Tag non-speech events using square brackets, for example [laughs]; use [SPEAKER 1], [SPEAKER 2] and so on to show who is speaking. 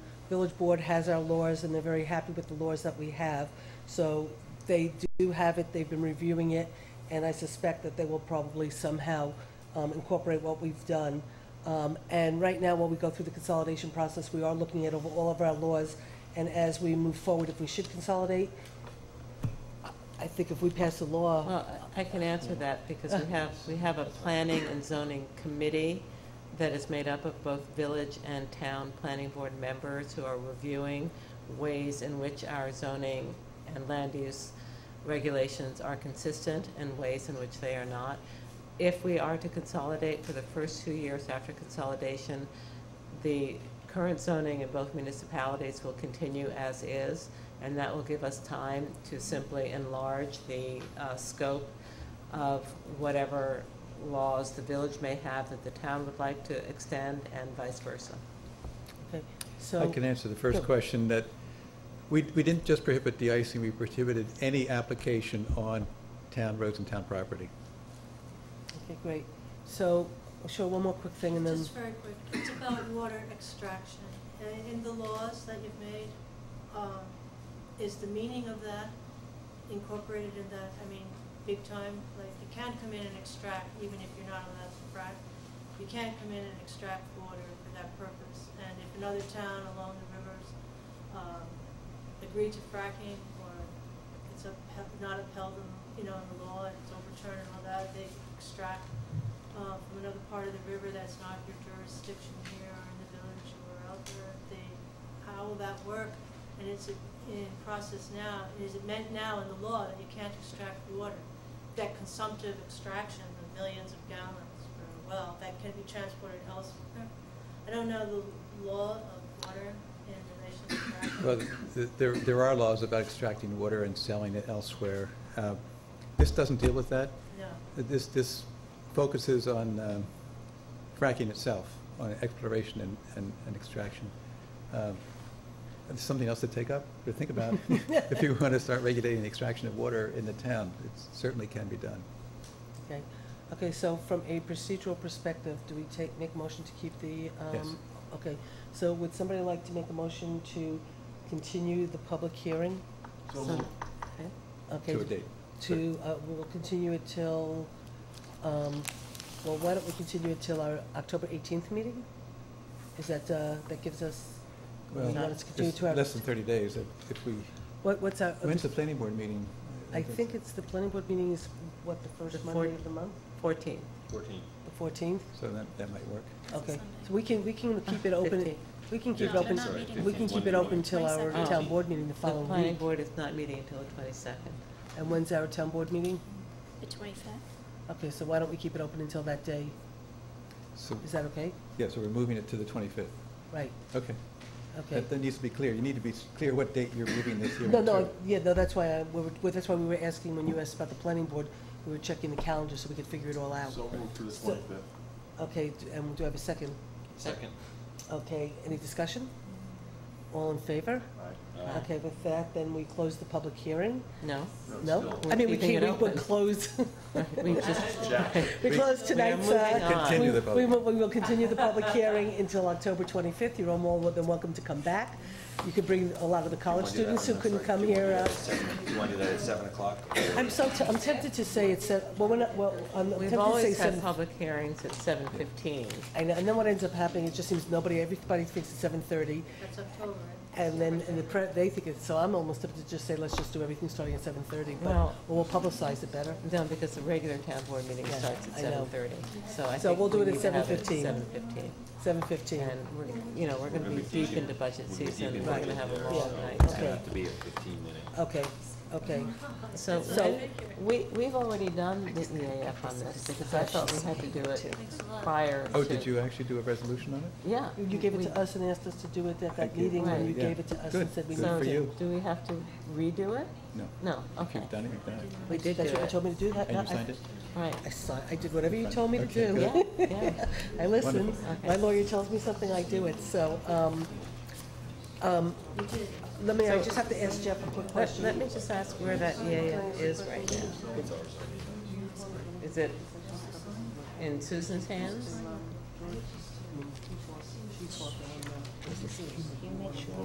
[SPEAKER 1] village board has our laws, and they're very happy with the laws that we have. So they do have it, they've been reviewing it, and I suspect that they will probably somehow um, incorporate what we've done. Um, And right now, while we go through the consolidation process, we are looking at over all of our laws, and as we move forward, if we should consolidate, I- I think if we pass a
[SPEAKER 2] Uh,
[SPEAKER 1] law,
[SPEAKER 3] Well, I can answer that because we have, we have a planning and zoning committee that is made up of both village and town planning board members who are reviewing ways in which our zoning and land use regulations are consistent and ways in which they are not. If we are to consolidate for the first two years after consolidation, the current zoning in both municipalities will continue as is, and that will give us time to simply enlarge the uh, scope of whatever laws the village may have that the town would like to extend, and vice versa.
[SPEAKER 1] okay, so.
[SPEAKER 2] I can answer the first
[SPEAKER 1] Go.
[SPEAKER 2] question, that we, we didn't just prohibit de-icing, we prohibited any application on town roads and town property.
[SPEAKER 1] Okay, great. So, I'll show one more quick thing, and then,
[SPEAKER 4] Just very quick, it's about water extraction. Uh, In the laws that you've made, um, is the meaning of that incorporated in that? I mean, big time, like you can come in and extract even if you're not allowed to frack. You can't come in and extract water for that purpose. And if another town along the rivers um, agreed to fracking or it's upheld, not upheld, in, you know, in the law and it's overturned and all that, they extract uh, from another part of the river that's not your jurisdiction here or in the village or out there, they, how will that work? And it's in process now, is it meant now in the law that you can't extract water? That consumptive extraction of millions of gallons for a well, that can be transported elsewhere? I don't know the law of water in relation to fracking.
[SPEAKER 2] Well, th- there, there are laws about extracting water and selling it elsewhere. Uh, This doesn't deal with that.
[SPEAKER 4] No,
[SPEAKER 2] This, this focuses on um, fracking itself, on exploration and, and- and extraction. Um, and Something else to take up, or
[SPEAKER 1] [laughs]
[SPEAKER 2] think about, if you want to start regulating the extraction of water in the town. It certainly can be done.
[SPEAKER 1] okay. Okay, so from a procedural perspective, do we take, make motion to keep the,
[SPEAKER 2] Yes.
[SPEAKER 1] um, okay. So would somebody like to make a motion to continue the public hearing?
[SPEAKER 3] So
[SPEAKER 1] Okay.
[SPEAKER 2] To a date.
[SPEAKER 1] to, uh, we'll continue it till, um, well, why don't we continue it till our October 18th meeting? Is that, uh, that gives us, we
[SPEAKER 2] Well,
[SPEAKER 1] want to continue
[SPEAKER 2] it's
[SPEAKER 1] to our,
[SPEAKER 2] Less than 30 days, if- if we,
[SPEAKER 1] what, what's our,
[SPEAKER 2] when's the planning board meeting?
[SPEAKER 1] I think it's, the planning board meeting is, what, the
[SPEAKER 3] The
[SPEAKER 1] first
[SPEAKER 3] four-
[SPEAKER 1] Monday of the month?
[SPEAKER 3] Fourteen.
[SPEAKER 5] Fourteen.
[SPEAKER 1] The 14th?
[SPEAKER 2] So that, that might work.
[SPEAKER 1] Okay,
[SPEAKER 6] Sunday.
[SPEAKER 1] so we can, we can keep it open,
[SPEAKER 3] 15.
[SPEAKER 1] we can keep it
[SPEAKER 6] No,
[SPEAKER 1] open,
[SPEAKER 6] they're not meeting
[SPEAKER 1] we can keep it open till our
[SPEAKER 6] 22nd.
[SPEAKER 1] town board meeting the
[SPEAKER 3] Oh. The
[SPEAKER 1] following
[SPEAKER 3] planning
[SPEAKER 1] week.
[SPEAKER 3] board is not meeting until the twenty-second.
[SPEAKER 1] And when's our town board meeting?
[SPEAKER 6] The twenty-fifth?
[SPEAKER 1] Okay, so why don't we keep it open until that day?
[SPEAKER 2] So,
[SPEAKER 1] Is that okay?
[SPEAKER 2] yeah, so we're moving it to the 25th.
[SPEAKER 1] Right,
[SPEAKER 2] Okay.
[SPEAKER 1] okay.
[SPEAKER 2] That that needs to be clear. You need to be s- clear what date you're
[SPEAKER 1] [laughs]
[SPEAKER 2] moving this hearing
[SPEAKER 1] No,
[SPEAKER 2] to. Oh,
[SPEAKER 1] no, yeah, no, that's why, I- we were- that's why we were asking when you asked about the planning board, we were checking the calendar so we could figure it all out.
[SPEAKER 7] So move to the
[SPEAKER 1] So-
[SPEAKER 7] twenty-fifth.
[SPEAKER 1] Okay, d- and do I have a second?
[SPEAKER 5] Second.
[SPEAKER 1] Okay, any discussion? All in favor?
[SPEAKER 5] Aye.
[SPEAKER 1] Okay, with that, then we close the public hearing?
[SPEAKER 3] No?
[SPEAKER 1] No? I mean, we
[SPEAKER 3] Keeping
[SPEAKER 1] can't,
[SPEAKER 3] it
[SPEAKER 1] we would
[SPEAKER 3] open. [laughs]
[SPEAKER 1] close,
[SPEAKER 3] We just,
[SPEAKER 7] Jack.
[SPEAKER 1] we
[SPEAKER 2] We-
[SPEAKER 1] close
[SPEAKER 3] we are
[SPEAKER 1] tonight's,
[SPEAKER 3] moving
[SPEAKER 1] uh,
[SPEAKER 3] on.
[SPEAKER 1] we
[SPEAKER 2] Continue the vote.
[SPEAKER 1] we will, we will continue the public hearing until October 25th. You're all more than welcome to come back. You could bring a lot of the college students who couldn't come here. uh,
[SPEAKER 5] Do you want to do that at seven o'clock?
[SPEAKER 1] I'm so, t- I'm tempted to say it's, se- well, we're not, well, I'm tempted
[SPEAKER 3] We've
[SPEAKER 1] to say
[SPEAKER 3] always
[SPEAKER 1] seven.
[SPEAKER 3] had public hearings at seven fifteen.
[SPEAKER 1] And, and then what ends up happening, it just seems nobody, everybody thinks it's seven thirty,
[SPEAKER 4] that's October. right?
[SPEAKER 1] and then, and the pre, they think it's, so I'm almost up to just say, let's just do everything starting at seven thirty, but,
[SPEAKER 3] Well-
[SPEAKER 1] or we'll publicize it better.
[SPEAKER 3] No, because the regular town board meeting
[SPEAKER 1] Yeah,
[SPEAKER 3] starts at
[SPEAKER 1] I know.
[SPEAKER 3] seven thirty, so I
[SPEAKER 1] So
[SPEAKER 3] think
[SPEAKER 1] we'll do
[SPEAKER 3] we
[SPEAKER 1] it at
[SPEAKER 3] need to have it at
[SPEAKER 1] 7:15.
[SPEAKER 3] seven fifteen.
[SPEAKER 1] Seven fifteen.
[SPEAKER 3] And we're, you know, we're gonna be deep into budget
[SPEAKER 5] We'll be deep
[SPEAKER 3] season,
[SPEAKER 5] in
[SPEAKER 3] we're
[SPEAKER 5] budget
[SPEAKER 3] gonna have a
[SPEAKER 5] there,
[SPEAKER 3] long
[SPEAKER 5] so
[SPEAKER 3] night.
[SPEAKER 5] It's
[SPEAKER 1] Okay.
[SPEAKER 5] gonna have to be a fifteen minute.
[SPEAKER 1] Okay, okay.
[SPEAKER 3] So,
[SPEAKER 1] So-
[SPEAKER 3] we, we've already done the EAF on this, because I thought we had to do it
[SPEAKER 4] Thanks a lot.
[SPEAKER 3] prior to.
[SPEAKER 2] Oh, did you actually do a resolution on it?
[SPEAKER 3] Yeah.
[SPEAKER 1] You gave it
[SPEAKER 3] we-
[SPEAKER 1] to us and asked us to do it at that
[SPEAKER 2] Thank you.
[SPEAKER 1] meeting, and
[SPEAKER 3] Right.
[SPEAKER 1] you
[SPEAKER 2] Yeah.
[SPEAKER 1] gave it to us
[SPEAKER 2] Good.
[SPEAKER 1] and said we
[SPEAKER 2] Good
[SPEAKER 1] need
[SPEAKER 2] for
[SPEAKER 1] to.
[SPEAKER 2] you.
[SPEAKER 3] So, do we have to redo it?
[SPEAKER 2] No.
[SPEAKER 3] No,
[SPEAKER 2] If
[SPEAKER 3] okay,
[SPEAKER 2] you've done it, you've done it.
[SPEAKER 3] We did
[SPEAKER 1] That's
[SPEAKER 3] do
[SPEAKER 1] what you
[SPEAKER 3] it.
[SPEAKER 1] told me to do that.
[SPEAKER 2] And
[SPEAKER 1] I-
[SPEAKER 2] you signed it?
[SPEAKER 3] right,
[SPEAKER 1] I saw, I did whatever you told me to
[SPEAKER 2] Okay,
[SPEAKER 1] do.
[SPEAKER 2] good.
[SPEAKER 3] yeah, yeah.
[SPEAKER 1] [laughs] I listen.
[SPEAKER 2] Wonderful.
[SPEAKER 3] Okay.
[SPEAKER 1] My lawyer tells me something, I do it, so, um, um,
[SPEAKER 4] We did.
[SPEAKER 1] let me, I just have to ask Jeff a quick
[SPEAKER 3] Let,
[SPEAKER 1] question.
[SPEAKER 3] let me just ask where that EAF is right now. Is it in Susan's hands?